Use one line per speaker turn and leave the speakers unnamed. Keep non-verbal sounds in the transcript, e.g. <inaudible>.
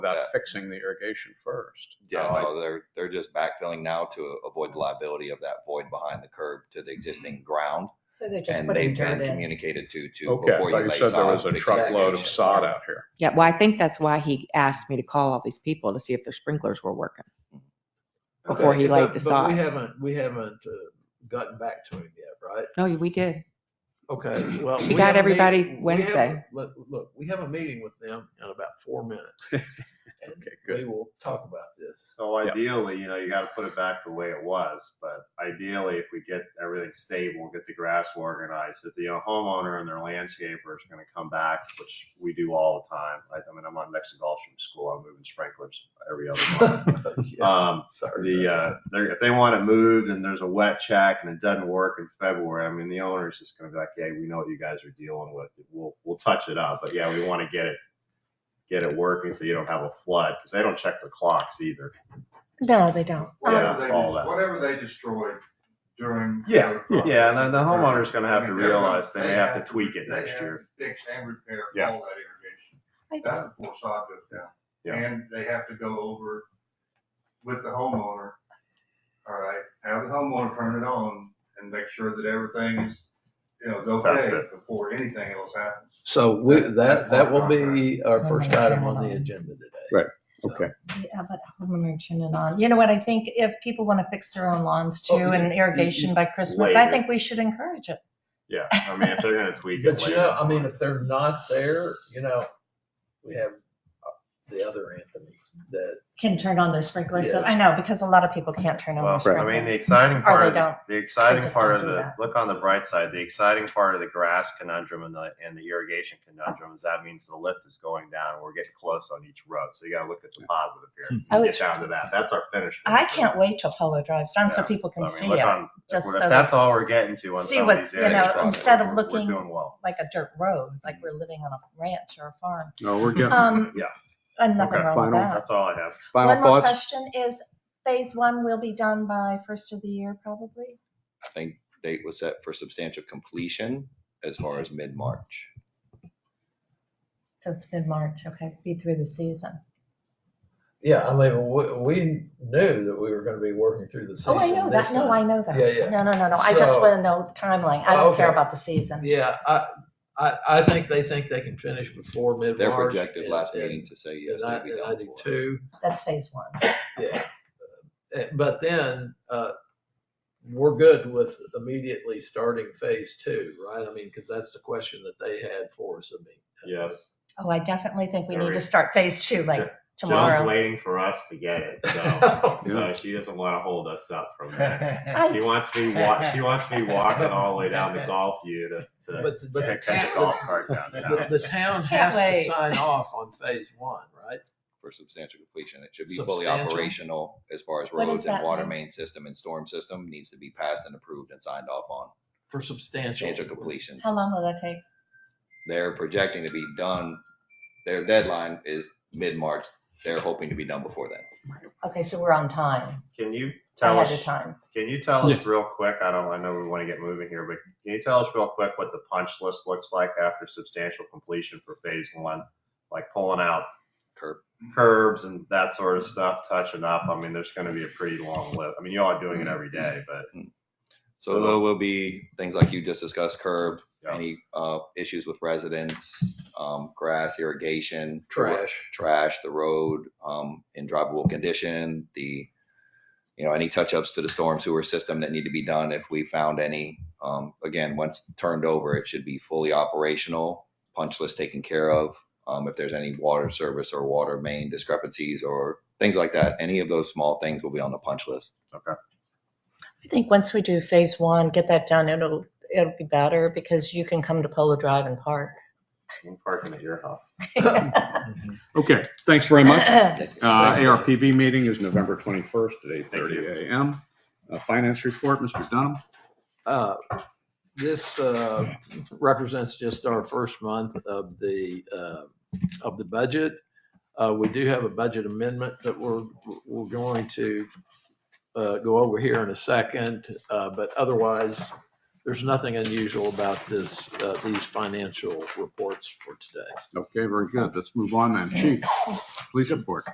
Yeah.
without fixing the irrigation first.
Yeah,
No, I-
no, they're, they're just backfilling now to avoid the liability of that void behind the curb to the
Mm-hmm.
existing ground.
So they're just
And they've
putting dirt
been
in.
communicated to, to
Okay,
before
but
you
you
lay
said there was
sod.
a
fix
truckload of
irrigation.
sod out here.
Yeah, well, I think that's why he asked me to call all these people to see if their sprinklers were working. Before he
Okay,
laid
but-
the
but
sod.
We haven't, we haven't uh, gotten back to him yet, right?
No, we did.
Okay, well.
She
we
got
have a
everybody
meeting- we have-
Wednesday.
Look, look, we have a meeting with them in about four minutes. and
Okay,
We
good.
will talk about
<laughs>
this. <laughs>
So
Yeah.
ideally, you know, you gotta put it back the way it was, but ideally, if we get everything stable, get the grass organized, if the homeowner and their landscaper is gonna come back, which we do all the time. I, I mean, I'm on next to golf from school, I'm moving sprinklers every other month.
Yeah,
Um,
Sorry.
the, uh, they're, if they want it moved and there's a wet check and it doesn't work in February, I mean, the owner's just gonna be like, hey, we know what you guys are dealing with. We'll, we'll touch it up, but yeah, we wanna get it, get it working so you don't have a flood, cause they don't check the clocks either.
No, they don't.
Yeah,
Whatever they,
all that.
whatever they destroyed during.
Yeah,
the-
yeah, and then the homeowner's gonna have to
I mean, they're gonna-
realize they may have to tweak it
they
next
have to
year.
Fix and repair
Yeah.
all that irrigation. That's before sod goes down.
Yeah.
And they have to go over with the homeowner, all right, have the homeowner turn it on and make sure that everything's, you know, is
That's
okay
it.
before anything else happens.
So we, that, that will be our
Oh
first
my
item on the
God.
agenda today.
Right,
So-
okay.
Yeah, but homeowner turning on. You know what? I think if people want to fix their own lawns too
Oh, yeah.
and irrigation by Christmas, I
Later.
think we should encourage it.
Yeah, I mean, if they're gonna tweak it
But you
later.
know, I mean, if they're not there, you know, we have uh, the other Anthony that
Can turn on their sprinklers.
Yes.
I know, because a lot of people can't turn on their
Well, I mean, the
sprinklers.
exciting
Or
part,
they
of the-
don't.
the exciting
just
part
don't
of
do
the,
that.
look on the bright side, the exciting part of the grass conundrum and the, and the irrigation conundrum is that means the lift is going down. and We're getting close on each road, so you gotta look at the positive here.
I
You
was-
Get down to that, that's our finish.
Oh, I can't wait till Polo drives down so
Yeah.
people can
I mean,
see
look
it,
on- if
just
we're-
so
If that's all we're getting to on
see
some
what-
of these
you know,
areas, we're-
instead of
we're
looking-
Doing well.
like a dirt road, like we're living on a ranch or a farm.
<laughs> No, we're getting,
Um,
Yeah.
And nothing
Okay,
wrong with
final.
that.
That's all I have.
final
One more
thoughts?
question is phase one will be done by first of the year probably?
I think date was set for substantial completion as far as mid-March.
So it's mid-March, okay, be through the season.
Yeah, I mean, we, we knew that we were gonna be working through the season.
Oh, I know
this
that, no,
time.
I know that.
Yeah, yeah.
No, no, no, no, I just
So- Oh,
want to know timeline, I don't care
Okay.
about the season.
Yeah, I, I, I think they think they can finish before mid-March.
They're projected
and-
last
and-
meeting to say yes,
And I,
they'd be
and I
done
do
before.
too,
That's phase one.
yeah. Uh, But then, uh, we're good with immediately starting phase two, right? I mean, because that's the question that they had for us, I mean.
<laughs> Yes.
Oh, I definitely think we need
Agreed.
to start phase two like
Sure. Joan's
tomorrow.
waiting for us to get it, so.
<laughs>
So she doesn't want to hold us up
<laughs>
from that. She
I-
wants me wa- she wants me walking all the way down to Golf View to,
<laughs>
to
But, but the
to catch a
<laughs> town,
golf cart downtown.
the, the town
Can't
has to
wait.
sign off on phase one, right?
for substantial completion. It should be fully
Substantial?
operational as far as
What does
roads and
that
water
mean?
main system and storm system needs to be passed and approved and signed off on.
For substantial.
Substantial completion.
How long will that take?
They're projecting to be done, their deadline is mid-March. They're hoping to be done before then.
Okay, so we're on time,
Can you tell
ahead
us,
of time.
can you tell us
Yes.
real quick, I don't, I know we want to get moving here, but can you tell us real quick what the punch list looks like after substantial completion for phase one? Like pulling out
Curb,
curbs and that sort of stuff, touching up. I mean, there's going to be a pretty long list. I mean, you all are doing it every day, but.
So there will be things like you just discussed, curb,
Yeah.
any uh, issues with residents, um, grass, irrigation. the ro-
Trash.
Trash, the road um, in drivable condition, the, you know, any touch-ups to the storm sewer system that need to be done if we found any. Um, Again, once turned over, it should be fully operational, punch list taken care of. Um, If there's any water service or water main discrepancies or things like that, any of those small things will be on the punch list.
I think once we do phase one, get that done, it'll, it'll be better because you can come to Polo Drive and
<laughs>
park.
I'm parking at your house.
Okay, thanks very <laughs> much.
<laughs>
Uh,
Thanks.
ARPB meeting is November 21st at
Thank you.
8:30 a.m. Uh, Finance report, Mr. Dunham.
Uh, This uh, represents just our first month of the, uh, of the budget. Uh, We do have a budget amendment that we're, we're going to uh, go over here in a second, uh, but otherwise, there's nothing unusual about this, uh, these financial reports for today.
Okay, very good. Let's move on then. Chief, police report.